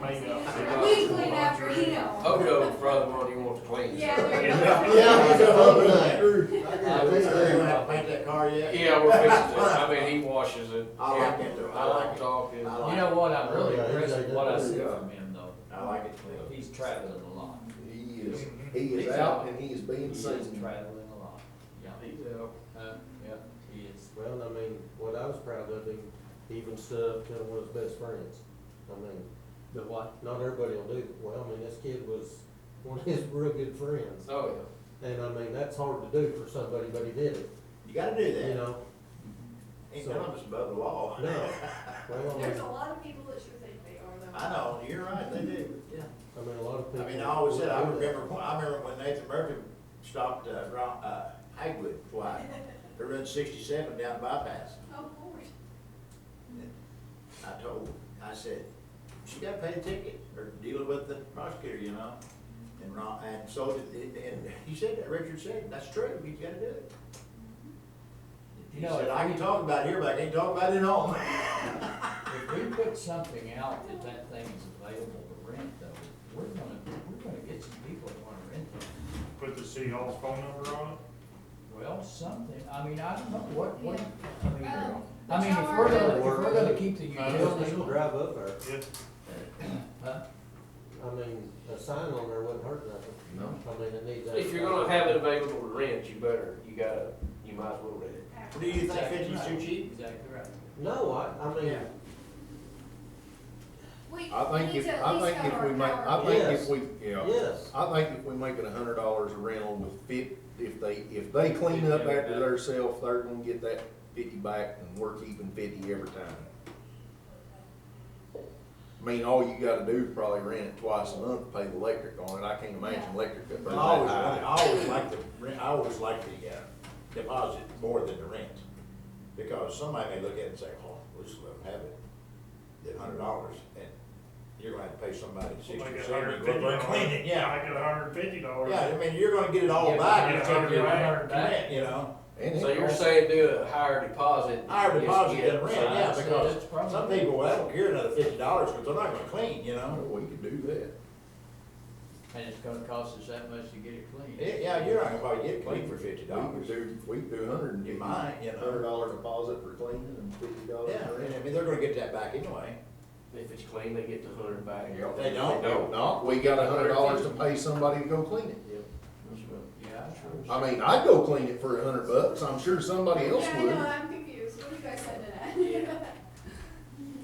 We clean after him. Hojo's probably one you want to clean. Yeah, there you Yeah. go. Yeah, he's a bump tonight. I I would say, we I haven't painted that car yet. Yeah, we're fixing it. I mean, he washes it. I like it though, I like it. Talking. I You like know it. what, I'm really Yeah, he's impressed like with that what I too. see Yeah. from him though. I like it. Cliff. He's traveling a lot. He is, he He's is out. out and he is He being is seen. traveling a lot. Yeah, He's out. Huh? Yep, he is. Well, I mean, what I was proud of him, he even stood up to one of his best friends. I mean, The what? not everybody will do, it. well, I mean, this kid was one of his real good friends. Oh, And I mean, that's hard to do for somebody, but he did it, You gotta do you that. know? Ain't none of us above the law. No. Oh. Well, I There's mean, a lot of people that sure think they are though. I know, you're right, they do. I mean, a lot of people. I mean, I always said, I wouldn't do that. remember, I remember when Nathan Murphy stopped, uh, Ron, uh, Hagwood twice. They run sixty-seven down bypass. Oh, Lord. I told, him, I said, she gotta pay the ticket or deal with the prosecutor, you know? And Ron, and so, did- and, and he said that, Richard said, that's true, you gotta do it. He You know, said, if I can we- talk about it here, but I can't talk about it at home. If we put something out that that thing is available to rent though, we're gonna, we're gonna get some people that wanna rent it. Put the city hall's phone number on it. Well, something, I mean, I don't know what, what, I mean, Um, I mean, if we're gonna, if we're gonna keep the utilities, Just drive up there. Uh, Yeah. huh? I mean, a sign on there wouldn't hurt nothing. No. I mean, it needs. yeah. If you're gonna have it available to rent, you better, you gotta, you might as well rent it. Do you think Exactly fifty's too right. cheap? Exactly right. No, I, I mean, Yeah. We I need think if, to at I least think have if our we make, power I think if we, yeah, yes, I think if we make it a hundred dollars a rental with fif, if they, if they clean up after theirself, they're gonna get that fifty back and we're keeping fifty every time. I mean, all you gotta do is probably rent it twice a month, pay the electric on it, I can't imagine electric up But there I that always, high. I always like the, rent- I always like the, uh, deposit more than the rent. Because somebody may look at it and say, oh, we just let them have it, the hundred dollars, and you're gonna have to pay somebody sixty, Like a seventy, hundred go fifty there and clean dollars. it, yeah. Like a hundred fifty dollars. Yeah, I mean, you're gonna get it all Yeah, back, but it's you're gonna gonna be get a hundred back. rent, you know? And So it- you're saying do a higher deposit? Higher deposit than rent, I'd yeah, say because that's probably- some people, well, they don't care another fifty dollars, because they're not gonna clean, you Oh, know? we could do that. And it's gonna cost us that much to get it clean. Yeah, Yeah, you're not gonna probably get clean for fifty We could dollars. do, we could do a hundred and You fifty. might, you know. Hundred dollar deposit for cleaning and fifty dollars Yeah, for rent. and I mean, they're gonna get that back anyway. If it's clean, they get the hundred back. Yeah. They don't. They don't, no, we got a hundred dollars to pay somebody to go clean it. yeah. Yeah, sure. Um, I mean, I'd go clean it for a hundred bucks, I'm sure somebody else Yeah, I would. know, I'm confused. What do you guys said to that?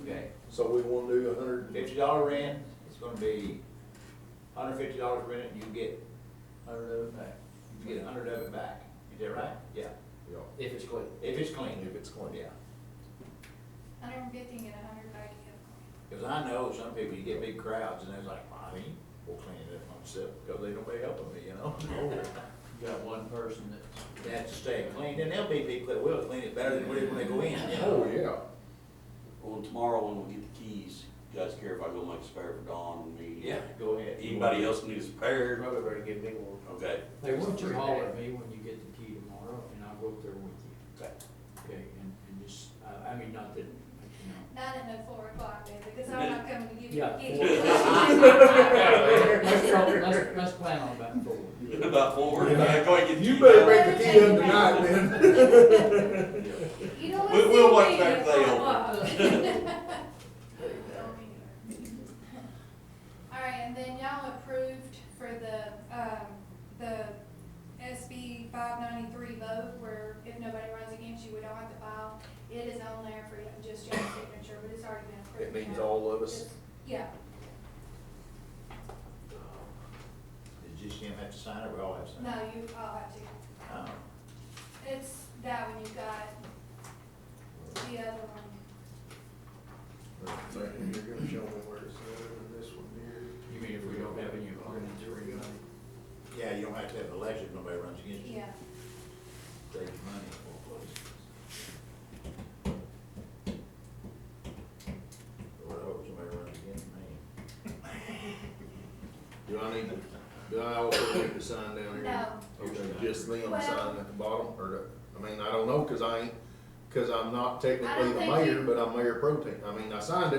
Okay. So we wanna do a hundred, and- Fifty dollar rent, it's gonna be hundred fifty dollars rent, and you get, Hundred of it back. you get a hundred of it back. Is that right? Yeah, yeah, If it's clean. if it's clean, if it's clean. yeah. Hundred and fifty and a hundred back you Cause I know some people, you get big crowds, and they're like, I mean, we'll clean it up myself, because they don't pay helping me, you know? Oh, You got one person that's They have to stay clean, and there'll be people that will clean it better than we did when they go in, you Oh, know? yeah, Well, tomorrow when we get the keys, you guys care if I go make a spare for Dawn and me? Yeah, go ahead. Anybody else need a spare? Probably better get a big one. Okay. Hey, why don't you Three days. holler at me when you get the key tomorrow, and I'll go up there with you. Okay. Okay, and, and just, I, I mean, not that, you know. Not in the four o'clock, baby, because I'm not coming to give you Yeah. a key. Let's, try- let's, let's plan on that forward. About four, yeah, go ahead and get the you key. better make the key up tonight then. You know what? We- we'll watch Steve, that you play know over. what? All right, and then y'all approved for the, um, the SB five ninety-three vote where if nobody runs against you, we don't have to file. It is on there for y- just your signature, but it's already been It approved. means now. all of us, Just- Yeah, Does just him have to sign it, we all have to sign no, it? you, I'll have to. Oh. It's that one you got. The other one. you're gonna show me where it's at, and this one here. You mean if we don't have any of our inventory? Yeah, you don't have to have an election, if nobody runs against you. Yeah. Save your money for place. Lord, I hope somebody runs against me. Do I need to, do I also need to sign down here? No. Okay, just them Well- sign at the bottom, or, the- I mean, I don't know, cause I ain't, cause I'm not technically the think you- mayor, but I'm mayor pro tem, I mean, I signed it,